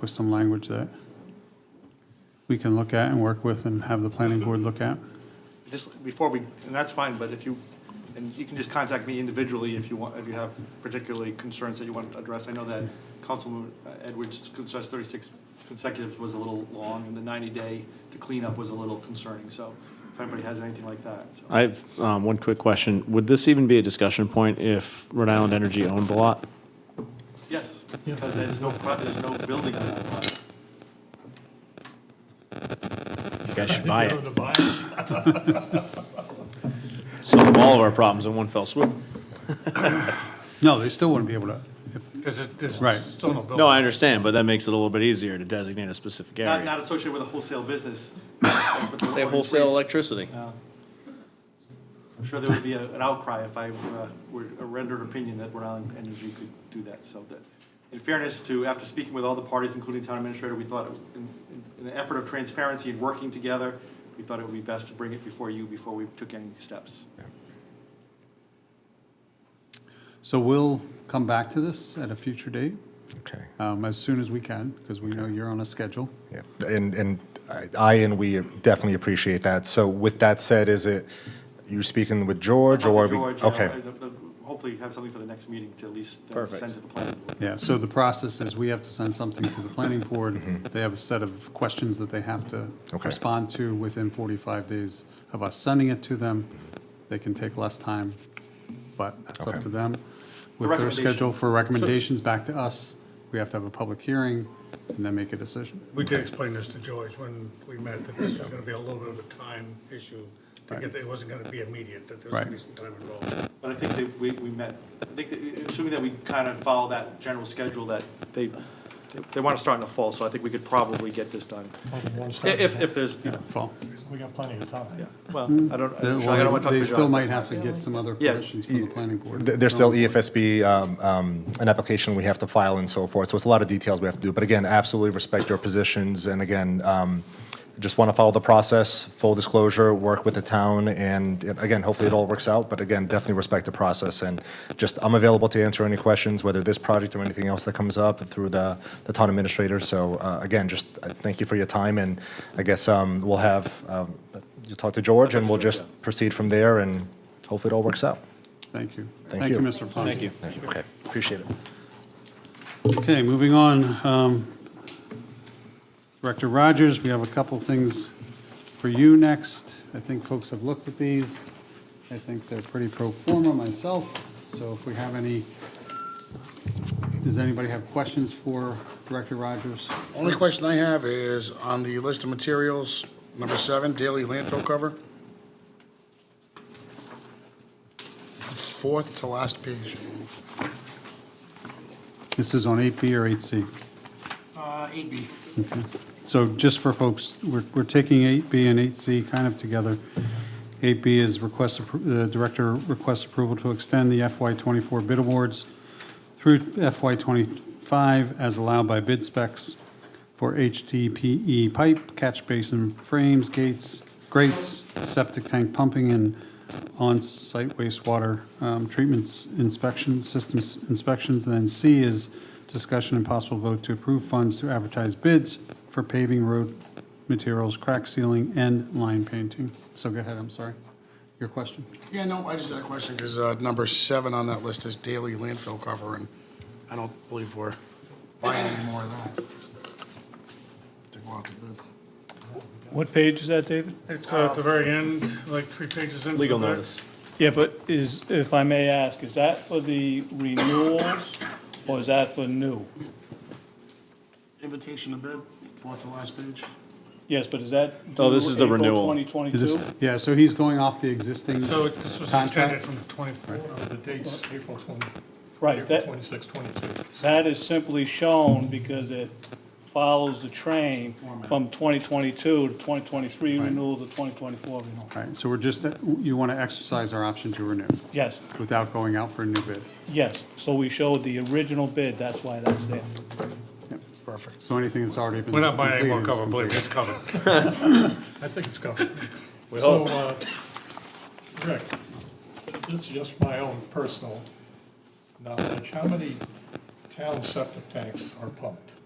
with some language that we can look at and work with and have the planning board look at. Just before we, and that's fine, but if you, and you can just contact me individually if you want, if you have particularly concerns that you want to address. I know that Councilman uh, Edwards' concerns thirty-six consecutive was a little long, and the ninety-day to clean up was a little concerning, so if anybody has anything like that, so. I have um, one quick question. Would this even be a discussion point if Rhode Island Energy owned the lot? Yes, because there's no, pro- there's no building on that lot. You guys should buy it. Solve all of our problems in one fell swoop. No, they still wouldn't be able to, if- Because it, there's Right. still no building. No, I understand, but that makes it a little bit easier to designate a specific Not, area. not associated with a wholesale business. That's what the They ordinance wholesale reads. electricity. I'm sure there would be a- an outcry if I uh, were a rendered opinion that Rhode Island Energy could do that, so that, in fairness to, after speaking with all the parties, including town administrator, we thought, it- in, in an effort of transparency and working together, we thought it would be best to bring it before you, before we took any steps. so we'll come back to this at a future date, Okay, um, as soon as we can, because we know you're on a schedule. yeah, and, and I- I and we definitely appreciate that. So with that said, is it, you speaking with George or? Talk are to we- George, uh, Okay, and, uh, Hopefully have something for the next meeting to at least uh, Perfect. send to the planning board. Yeah, so the process is we have to send something to the planning board. They have a set of questions that they have to Mm-hmm. Okay. respond to within 45 days of us sending it to them. They can take less time, but that's up Okay. to them. With their recommendation. schedule for recommendations back to us, we have to have a public hearing and then make a decision. We did explain this to George when we met, that this was gonna be a little bit of a time issue. To get, it wasn't gonna be immediate, that there was gonna be Right. some time involved. But I think that we, we met, I think that, uh, assuming that we kind of follow that general schedule that they, they- they want to start in the fall, so I think we could probably get this done. If, if there's, you know, Fall. We got plenty of yeah, time. well, I don't, I don't I don't want to talk to They you. still might have to get some other Yeah. permissions from the planning board. Th- there's still EFSB, um, um, an application we have to file and so forth, so it's a lot of details we have to do. But again, absolutely respect your positions, and again, um, just want to follow the process, full disclosure, work with the town, and uh, again, hopefully it all works out, but again, definitely respect the process, and just, I'm available to answer any questions, whether this project or anything else that comes up through the, the town administrator, so uh, again, just uh, thank you for your time, and I guess um, we'll have, um, you'll talk to George, and we'll just proceed from there, and hopefully it all works out. Thank you. Thank Thank you, you. Mr. Fonzie. Thank you. Okay, appreciate it. Okay, moving on. um, Director Rogers, we have a couple things for you next. I think folks have looked at these. I think they're pretty pro forma myself, so if we have any, does anybody have questions for Director Rogers? Only question I have is on the list of materials, number seven, daily landfill cover. The Fourth to last page. This is on 8B or 8C? Uh, eight B. So just for folks, we're, we're taking 8B and 8C kind of together. 8B is request, appro- the director requests approval to extend the FY '24 bid awards through FY '25 as allowed by bid specs for HDPE E pipe, catch basin frames, gates, grates, septic tank pumping, and on-site wastewater um, treatments inspections, systems inspections. And then C is discussion and possible vote to approve funds to advertise bids for paving road materials, crack sealing, and line painting. So go ahead, I'm sorry. Your question? Yeah, no, I just had a question, because, uh, number seven on that list is daily landfill cover, and I don't believe we're buying any more of that. To go out to bid. What page is that, David? It's uh, at the very end, like three pages into the Legal back. notice. Yeah, but is, if I may ask, is that for the renewals or is that for new? Invitation to bid, fourth to last page. Yes, but is that? No, this is the due April renewal. It is- 2022? Yeah, so he's going off the existing So it- this was extended contract. from twenty-four. Uh, The date's April 20, Right, April that, 26, 22. that is simply shown because it follows the train from 2022 to 2023 renewal to 2024 renewal. Right, so we're just, you want to exercise our option to renew Yes, without going out for a new bid. yes, so we showed the original bid, that's why that's there. Perfect. So anything that's already been. We're not buying any more completed is cover, believe me, completed. it's covered. I think it's covered. We So, hope. uh, Rick, this is just my own personal knowledge. How many town septic tanks are pumped?